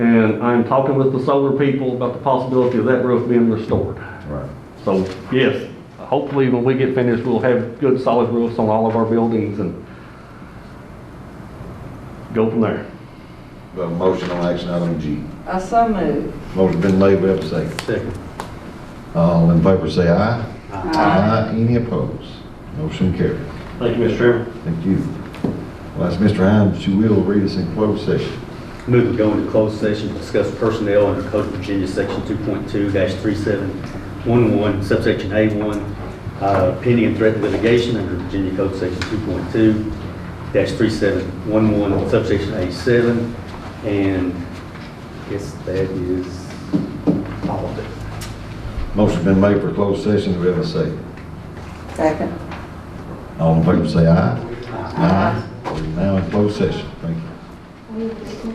And I'm talking with the solar people about the possibility of that roof being restored. Right. So, yes, hopefully when we get finished, we'll have good solid roofs on all of our buildings and go from there. Got a motion on action item G. I so move. Motion been made, we have a second. Second. All in favor say aye. Aye. Any opposed? Motion carried. Thank you, Mr. Chairman. Thank you. Well, that's Mr. Hines, you will read us in closed session. Move to go into closed session to discuss personnel under Code of Virginia, Section 2.2-3711, subsection A1, uh, pending and threatened litigation under Virginia Code Section 2.2-3711, subsection A7, and I guess that is all of it. Motion been made for closed session, we have a second. Second. All in favor say aye. Aye. We're now in closed session. Thank you.